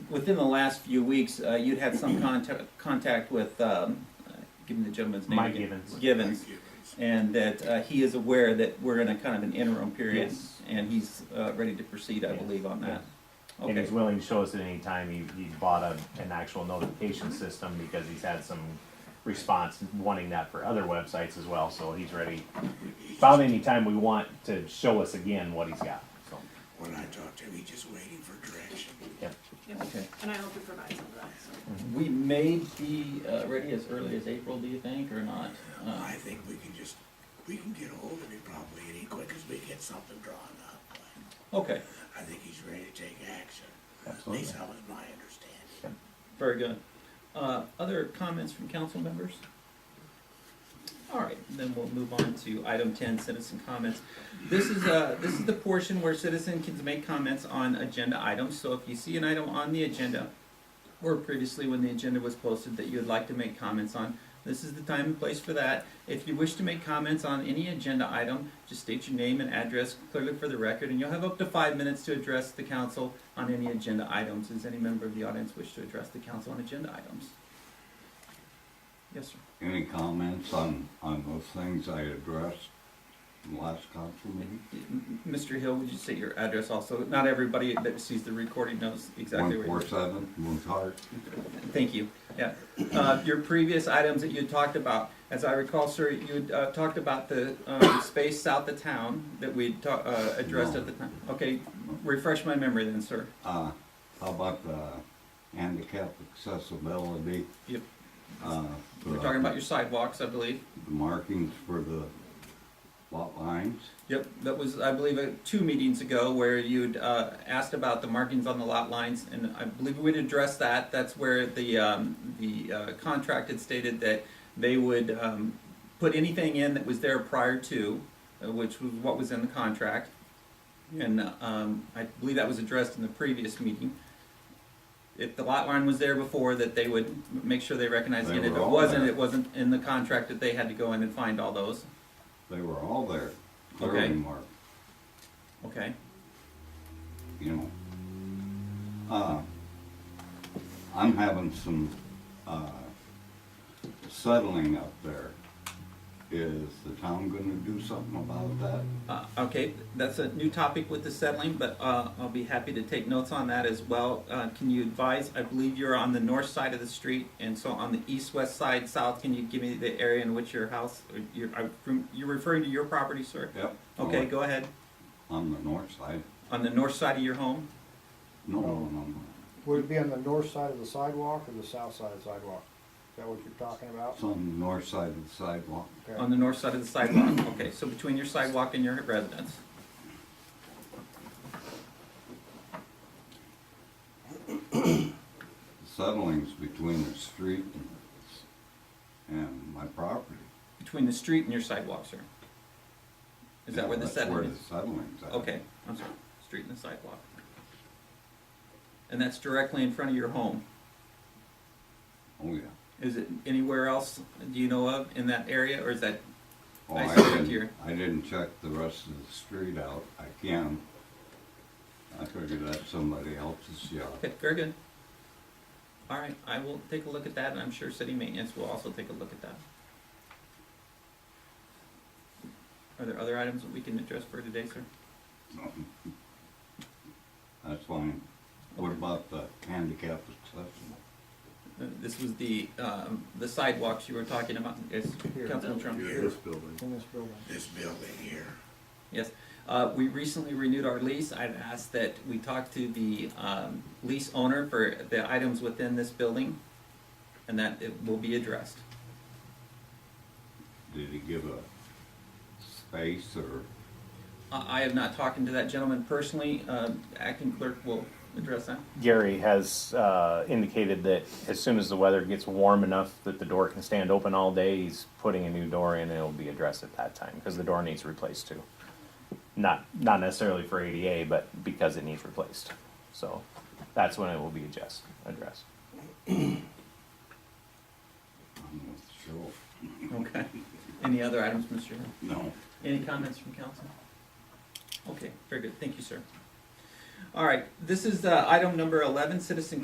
within the last few weeks, uh, you'd had some contact, contact with, um, uh, give me the gentleman's name. Mike again. Givens. Givens, and that, uh, he is aware that we're in a kind of an interim period. Yes. And he's, uh, ready to proceed, I Yes. believe, on that. And Okay, he's willing to show us at any time. He, he bought a, an actual notification system because he's had some response wanting that for other websites as well, so he's ready. About any time we want to show us again what he's got, so, When I talked to him, he just waiting for direction. yep. Yeah, okay. and I hope you provide some of that, so. We may be, uh, ready as early as April, do you think, or not? Uh, I think we can just, we can get ahold of him probably any quick as we get something drawn up. Okay, I think he's ready to take action. Absolutely. At least that was my understanding. very good. Uh, other comments from council members? All right, then we'll move on to item ten, citizen comments. This is, uh, this is the portion where citizen can make comments on agenda items, so if you see an item on the agenda or previously when the agenda was posted that you would like to make comments on, this is the time and place for that. If you wish to make comments on any agenda item, just state your name and address clearly for the record, and you'll have up to five minutes to address the council on any agenda items. Does any member of the audience wish to address the council on agenda items? Yes, sir. Any comments on, on those things I addressed in the last council meeting? M- Mr. Hill, would you state your address also? Not everybody that sees the recording knows exactly where One you're. four seven, Montart. Thank you, yeah. Uh, Your previous items that you talked about, as I recall, sir, you had, uh, talked about the um, space south of town that we ta- uh, addressed at the time. Okay, refresh my memory then, sir. Uh, how about the handicap accessibility? Yep. Uh, for We're the- talking about your sidewalks, I believe. The markings for the lot lines. Yep, that was, I believe, uh, two meetings ago where you'd uh, asked about the markings on the lot lines, and I believe we'd addressed that. That's where the, um, the uh, contract had stated that they would um, put anything in that was there prior to, uh, which was what was in the contract. And um, I believe that was addressed in the previous meeting. If the lot line was there before, that they would m- make sure they recognized They it. If were it all wasn't, there. it wasn't in the contract that they had to go in and find all those. They were all there, Okay. clearly marked, Okay? you know. Uh, I'm having some, uh, settling up there. Is the town gonna do something about that? Uh, Okay, that's a new topic with the settling, but uh, I'll be happy to take notes on that as well. Uh, Can you advise, I believe you're on the north side of the street, and so on the east-west side, south, can you give me the area in which your house, or your- I- from- you're referring to your property, sir? Yep. Okay, go ahead. On the north side? On the north side of your home? No, no, no. Would it be on the north side of the sidewalk or the south side of the sidewalk? Is that what you're talking about? It's on the north side of the sidewalk. Okay. On the north side of the sidewalk, okay, so between your sidewalk and your residence. The Settling's between the street and, and my property. Between the street and your sidewalk, sir? Is that where the That's settling Where is? the settling's at. Okay, I'm sorry, street and the sidewalk. And that's directly in front of your home. Oh, yeah. Is it anywhere else, do you know of, in that area, or is that, Oh, I I see it didn't- here. I didn't check the rest of the street out. I can. I figured that's somebody else's yard. okay, very good. All right, I will take a look at that, and I'm sure city maintenance will also take a look at that. Are there other items that we can address for today, sir? That's fine. What about the handicap accessible? Uh, This was the, um, the sidewalks you were talking about, yes, Here. Councilman Trump? Here, In this building. this building here, Yes, uh, we recently renewed our lease. I've asked that we talk to the, um, lease owner for the items within this building, and that it will be addressed. Did he give a space or? I, I have not talked to that gentleman personally, um, acting clerk will address that. Gary has uh, indicated that as soon as the weather gets warm enough that the door can stand open all day, he's putting a new door in and it'll be addressed at that time because the door needs replaced too. Not not necessarily for ADA, but because it needs replaced. So that's when it will be adjust, addressed. I'm not sure. Okay. Any other items, Mr. Hill? No. Any comments from council? Okay, very good, thank you, sir. All right, this is, uh, item number eleven, citizen